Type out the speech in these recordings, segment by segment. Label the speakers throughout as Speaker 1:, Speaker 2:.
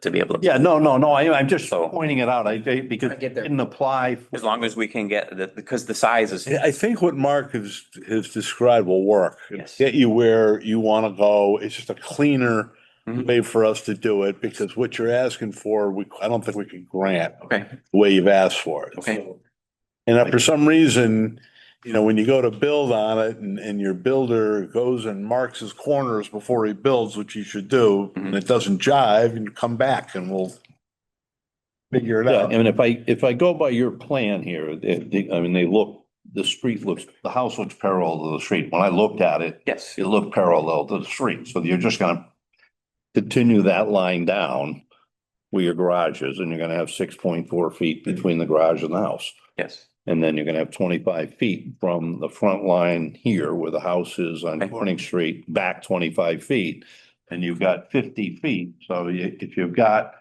Speaker 1: to be able to.
Speaker 2: Yeah, no, no, no, I, I'm just
Speaker 1: So-
Speaker 2: pointing it out, I, I- because
Speaker 3: I
Speaker 2: it
Speaker 3: get that.
Speaker 2: didn't apply. for-
Speaker 1: As long as we can get the, because the size is,
Speaker 4: I I think what Mark has, has described will work.
Speaker 1: Yes.
Speaker 4: Get you where you want to go. It's just a cleaner
Speaker 1: Mhm.
Speaker 4: way for us to do it because what you're asking for, we, I don't think we can grant
Speaker 1: okay,
Speaker 4: the way you've asked for it.
Speaker 1: Okay.
Speaker 4: So- And if for some reason, you know, when you go to build on it and, and your builder goes and marks his corners before he builds, which you should do, and it doesn't jive, and come back and we'll figure it
Speaker 2: Yeah,
Speaker 4: out.
Speaker 2: and if I, if I go by your plan here, it- it- I mean, they look, the street looks, the house looks parallel to the street. When I looked at it,
Speaker 1: yes,
Speaker 2: it looked parallel to the street, so you're just gonna continue that line down where your garage is, and you're gonna have six point four feet between the garage and the house.
Speaker 1: yes.
Speaker 2: And then you're gonna have twenty-five feet from the front line here where the house is on
Speaker 1: Okay.
Speaker 2: Corning Street, back twenty-five feet. And you've got fifty feet, so you- if you've got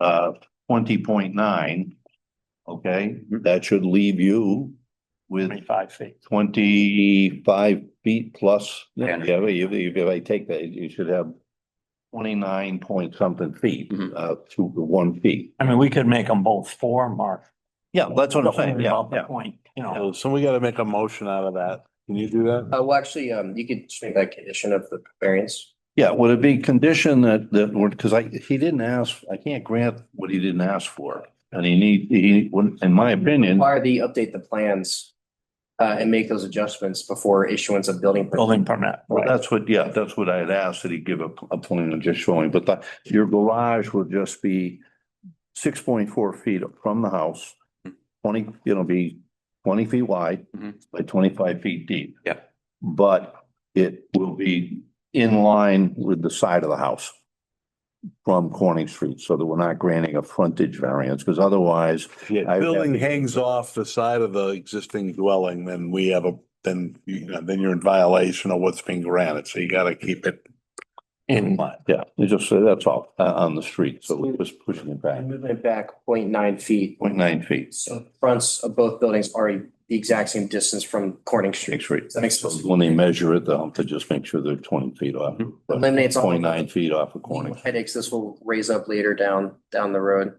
Speaker 2: uh twenty point nine, okay, that should leave you with
Speaker 3: Twenty-five feet.
Speaker 2: twenty-five feet plus.
Speaker 1: Yeah.
Speaker 2: Yeah, but if, if if I take that, you should have twenty-nine point something feet,
Speaker 1: Mhm.
Speaker 2: uh, to the one feet.
Speaker 3: I mean, we could make them both four, Mark.
Speaker 2: Yeah, that's what I'm
Speaker 3: Don't
Speaker 2: saying,
Speaker 3: worry
Speaker 2: yeah,
Speaker 3: about the
Speaker 2: yeah.
Speaker 3: Point, you know.
Speaker 4: So we gotta make a motion out of that. Can you do that?
Speaker 5: Uh, well, actually, um, you could just make that condition of the variance.
Speaker 2: Yeah, would it be condition that, that, would because I, he didn't ask, I can't grant what he didn't ask for. And he need, he, wouldn't- in my opinion,
Speaker 5: Require the update the plans, uh, and make those adjustments before issuance of building.
Speaker 2: Oh.
Speaker 5: permit.
Speaker 3: Building permit,
Speaker 2: well,
Speaker 3: right.
Speaker 2: that's what, yeah, that's what I had asked, that he give a, a plan and just showing, but the, your garage would just be six point four feet from the house, twenty, it'll be twenty feet wide
Speaker 1: Mhm.
Speaker 2: by twenty-five feet deep.
Speaker 1: Yeah.
Speaker 2: But it will be in line with the side of the house from Corning Street, so that we're not granting a frontage variance, because otherwise I-
Speaker 4: Yeah, building hangs off the side of the existing dwelling, then we have a, then, you know, then you're in violation of what's being granted, so you gotta keep it.
Speaker 3: In,
Speaker 2: Yeah, it's just, uh, that's all, uh, on the street, so we're just pushing it back,
Speaker 5: And Moving it back 0.9 feet,
Speaker 2: point nine feet.
Speaker 5: so fronts of both buildings are the exact same distance from Corning Street.
Speaker 2: Six feet.
Speaker 5: That makes sense.
Speaker 2: When they measure it, they'll have to just make sure they're twenty feet off,
Speaker 4: Mm-hmm.
Speaker 5: Eliminates all.
Speaker 2: point nine feet off of Corning.
Speaker 5: Headaches this will raise up later down, down the road.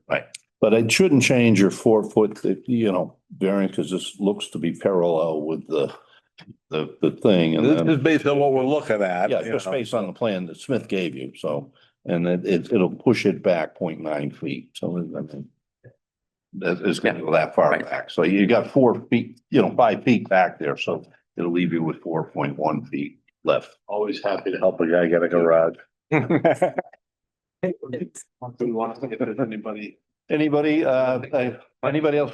Speaker 2: But it shouldn't change your four foot, you know, variance, because this looks to be parallel with the, the, the thing. and
Speaker 4: This
Speaker 2: then-
Speaker 4: is based on what we're looking at.
Speaker 2: Yeah,
Speaker 4: you
Speaker 2: just
Speaker 4: know.
Speaker 2: based on the plan that Smith gave you, so, and it, it, it'll push it back 0.9 feet, so I mean. That is gonna go that far
Speaker 1: Right.
Speaker 2: back, so you got four feet, you know, five feet back there, so it'll leave you with four point one feet left.
Speaker 4: Always happy to help a guy get a garage. If there's anybody.
Speaker 2: Anybody, uh, uh, anybody else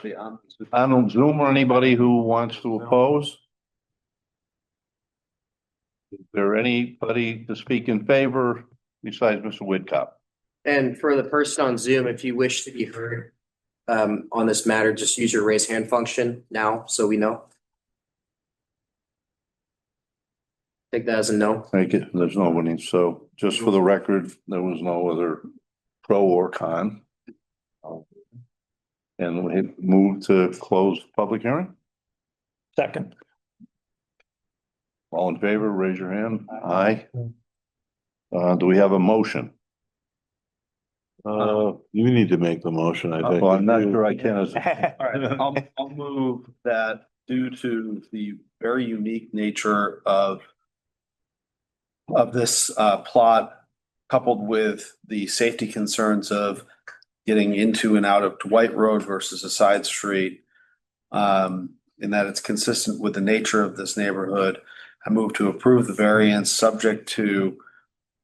Speaker 2: on Zoom or anybody who wants to oppose? Is there anybody to speak in favor besides Mr. Whitcup?
Speaker 5: And for the person on Zoom, if you wish to be heard, um, on this matter, just use your raise hand function now, so we know. Take that as a no.
Speaker 2: Thank you. There's nobody. So just for the record, there was no other pro or con. And we move to close the public hearing.
Speaker 3: second.
Speaker 2: All in favor, raise your hand. Aye. Uh, do we have a motion?
Speaker 4: Uh, you need to make the motion, I think.
Speaker 2: Well, I'm not sure I can. as-
Speaker 6: All right, I'll, I'll move that due to the very unique nature of of this uh, plot, coupled with the safety concerns of getting into and out of Dwight Road versus a side street, um, in that it's consistent with the nature of this neighborhood, I move to approve the variance subject to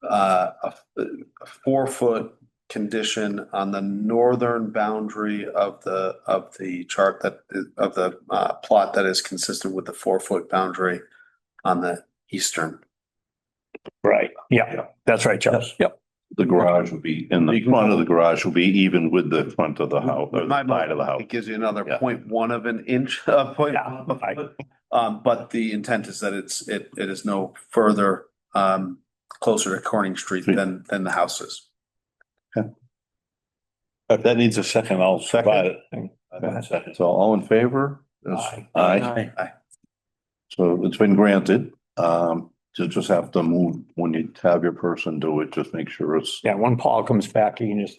Speaker 6: uh, a a four-foot condition on the northern boundary of the, of the chart that, of the uh, plot that is consistent with the four-foot boundary on the eastern.
Speaker 3: Right, yeah,
Speaker 2: Yeah.
Speaker 3: that's right, Charles. Yep.
Speaker 2: The garage will be, in the front of the garage will be even with the front of the house, or
Speaker 6: My
Speaker 2: the side of the house.
Speaker 6: It gives you another
Speaker 2: Yeah.
Speaker 6: point one of an inch, uh, point.
Speaker 3: Yeah, I-
Speaker 6: Um, but the intent is that it's, it, it is no further, um, closer to Corning Street than, than the house is.
Speaker 4: If that needs a second, I'll second it.
Speaker 2: So all in favor?
Speaker 3: Aye.
Speaker 2: Aye.
Speaker 6: Aye.
Speaker 2: So it's been granted. Um, you just have to move, when you have your person do it, just make sure it's
Speaker 3: Yeah, when Paul comes back, you can just